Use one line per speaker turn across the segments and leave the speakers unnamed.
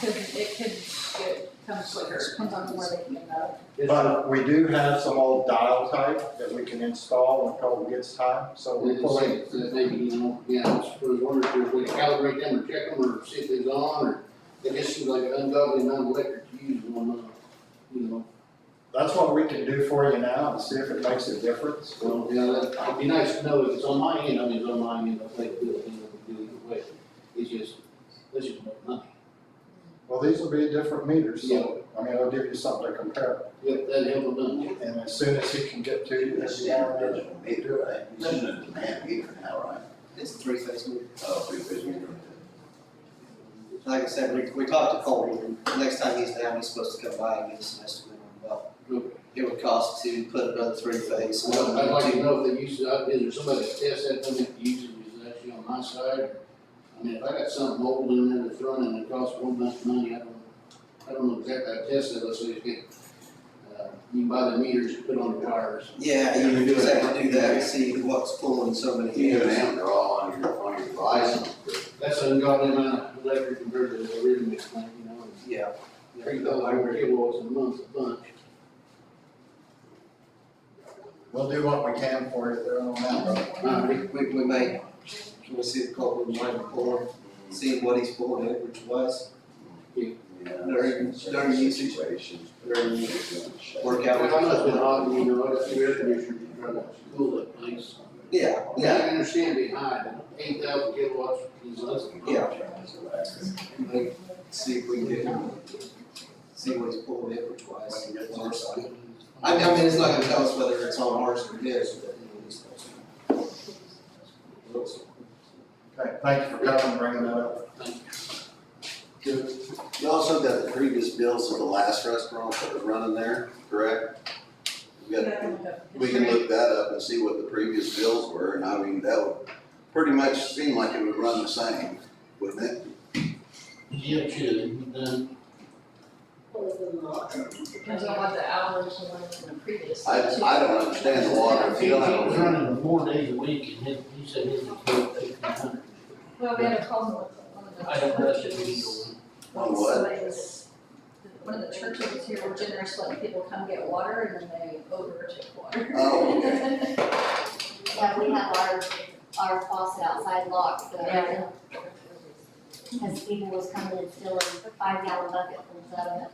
could, it could get, come quicker, depends on where they can go.
But we do have some old dial type that we can install when COVID gets time, so we
It's
fully,
like, uh, they, you know, yeah, I was- I was wondering if there's a way to calibrate them or check them or see if it's on or it just seems like an ungodly amount of electric to use one, uh, you know.
that's what we can do for you now and see if it makes a difference.
So, yeah, that, it'd be nice to know if it's on my end, I mean, it's on my end, I think, you know, we do either way. It's just, it's just more money.
Well, these will be different meters, so, I mean, it'll give you something to compare.
Yep, that helped a bunch.
And as soon as he can get to you,
This
that's
is
the
an
idea.
original meter, right? This is a demand meter now, right?
It's three phase meter.
Oh, three-phase meter.
Like I said, we, we talked to Colby, and next time he's down, he's supposed to come by and give us an estimate on what it would cost to put another three phase.
Well, I'd like to know if they use it, out- is there somebody that tests that, thing if the usage is actually on my side? I mean, if I got something old in there that's running and it costs one bunch of money, I don't, I don't know exactly how to test it, let's say it's get, uh, you can buy the meters, put on the wires.
Yeah, you would exactly do that, and see what's pulling so many
You and
amps.
them, they're all on your, on your device.
That's an ungodly amount of electric compared to the original plant, you know, and
Yeah,
three thousand kilowatts a month, a bunch.
We'll do what we can for you there on that, brother.
Uh,
we, we, we may, can we see if Colby might pull, see what he's pulling it, which was, During- during usage.
Situations.
during the
Work.
workout.
I know it's been hot, you know, I got two air conditioners trying to cool that place.
Yeah,
Yeah, I
yeah,
understand being high, eight thousand kilowatts is less than.
Yeah. Like, see if we can get, see what he's pulling it, which was. I mean, I mean, it's not gonna tell us whether it's on ours or his, but you know, it's.
Okay, thank you for coming and bringing that up.
You also got the previous bills of the last restaurant that was running there, correct? We got- We can look that up and see what the previous bills were, and I mean, that would pretty much seem like it would run the same, wouldn't it?
Yeah, true, then,
Depends on what the hours were in the previous.
I,
too.
I don't understand the water, if you don't
He was
have a
running four days a week and his, he said his was about fifteen hundred.
Well, we had a call with one of the.
I don't know if it
churches.
was.
On what?
Somebody's- One of the churches here were generous, letting people come get water and then they overtook water.
Oh, okay.
Yeah, we have our, our faucet outside locked,
Yeah.
so, because people was coming and stealing five gallon bucket full of it.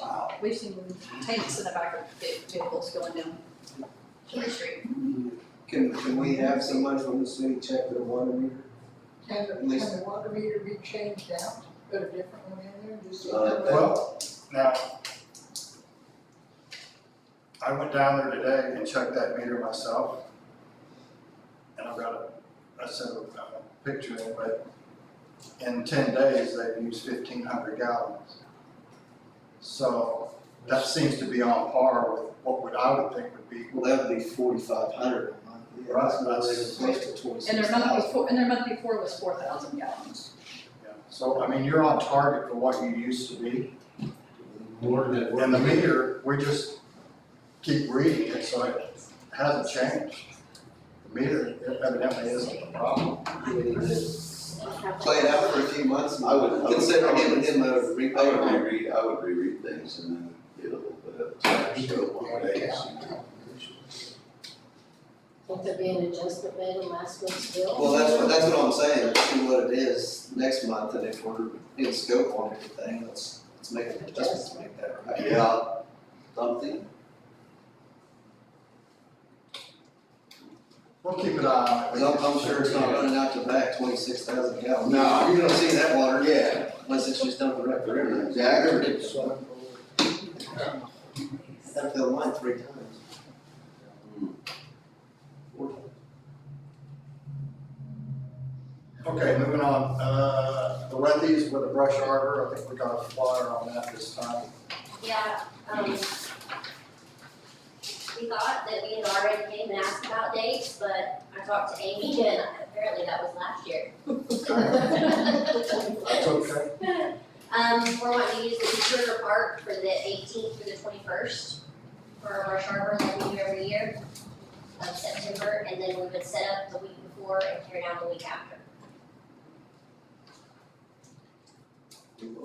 wow.
We've seen tanks in the back of big vehicles going down King Street.
Can, can we have someone from the city check their water meter?
Can the,
At least-
can the water meter be changed out, put a different one in there, just so
Uh,
that-
Well, now, I went down there today and checked that meter myself. And I've got a, I sent a uh, picture in, but in ten days, they've used fifteen hundred gallons. So that seems to be on par with what would, I would think would be,
Well, that would be forty-five hundred a month. Yeah,
Right,
That's
that's-
close to twenty-six
And
thousand.
their month before, and their month before was four thousand gallons.
yeah. So, I mean, you're on target for what you used to be.
More than.
And the meter, we just keep reading it, so it hasn't changed. The meter evidently isn't the problem.
We need to Play it out for a few months
I would- I
and
would-
consider giving him a rebate.
I would reread, I would reread things and then get a little bit of time, so one day.
Won't there be an adjustment made in last month's bill?
Well, that's what, that's what I'm saying, see what it is next month, and if we're in scope on everything, let's, let's make, it- let's make that right.
Yeah, something,
We'll keep an eye on it.
Cause I'm, I'm sure it's not running out to back twenty-six thousand gallons.
No.
You're gonna see that water.
Yeah.
Unless it's just dumped right the river.
Exactly.
That filled mine three times. Four times.
Okay, moving on, uh, the Wendy's with a brush arbor, I think we got a flyer on that this time.
Yeah, um, we thought that we had already came and asked about dates, but I talked to Amy and apparently that was last year.
That's okay.
Um, we're wanting to use the East River Park for the eighteenth through the twenty-first for our harbor that we do every year of September, and then we would set up the week before and tear down the week after.